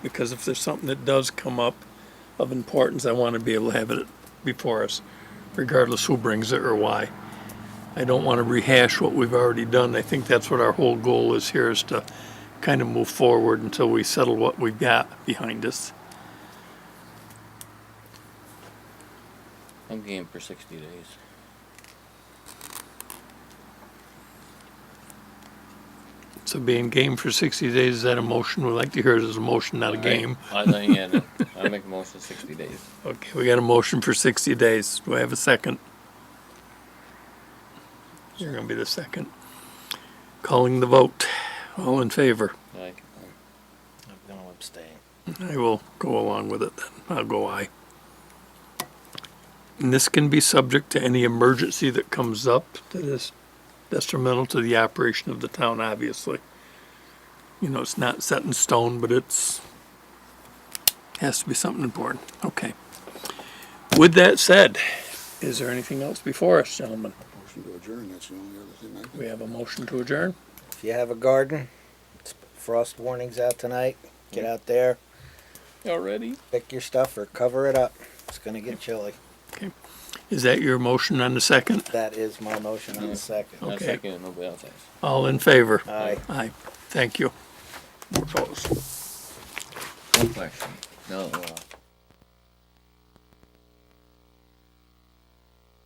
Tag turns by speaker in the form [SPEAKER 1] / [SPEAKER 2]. [SPEAKER 1] because if there's something that does come up of importance, I want to be able to have it before us, regardless who brings it or why. I don't want to rehash what we've already done. I think that's what our whole goal is here, is to kind of move forward until we settle what we've got behind us.
[SPEAKER 2] I'm game for sixty days.
[SPEAKER 1] So being game for 60 days, is that a motion? We'd like to hear it as a motion, not a game.
[SPEAKER 2] I think, yeah, no, I make a motion sixty days.
[SPEAKER 1] Okay, we got a motion for 60 days. Do I have a second? You're going to be the second. Calling the vote. All in favor?
[SPEAKER 2] Like,
[SPEAKER 3] I'm gonna abstain.
[SPEAKER 1] I will go along with it then. I'll go aye. And this can be subject to any emergency that comes up that is detrimental to the operation of the town, obviously. You know, it's not set in stone, but it's, has to be something important. Okay. With that said, is there anything else before us, gentlemen?
[SPEAKER 4] Motion to adjourn, that's the only other thing I can.
[SPEAKER 1] We have a motion to adjourn?
[SPEAKER 3] If you have a garden, it's frost warnings out tonight. Get out there,
[SPEAKER 2] already?
[SPEAKER 3] pick your stuff or cover it up. It's gonna get chilly.
[SPEAKER 1] Is that your motion on the second?
[SPEAKER 3] That is my motion on the second.
[SPEAKER 2] I
[SPEAKER 1] Okay.
[SPEAKER 2] second it, nobody else has.
[SPEAKER 1] All in favor?
[SPEAKER 3] Aye.
[SPEAKER 1] Aye. Thank you. We're closed.
[SPEAKER 2] One question. No, uh,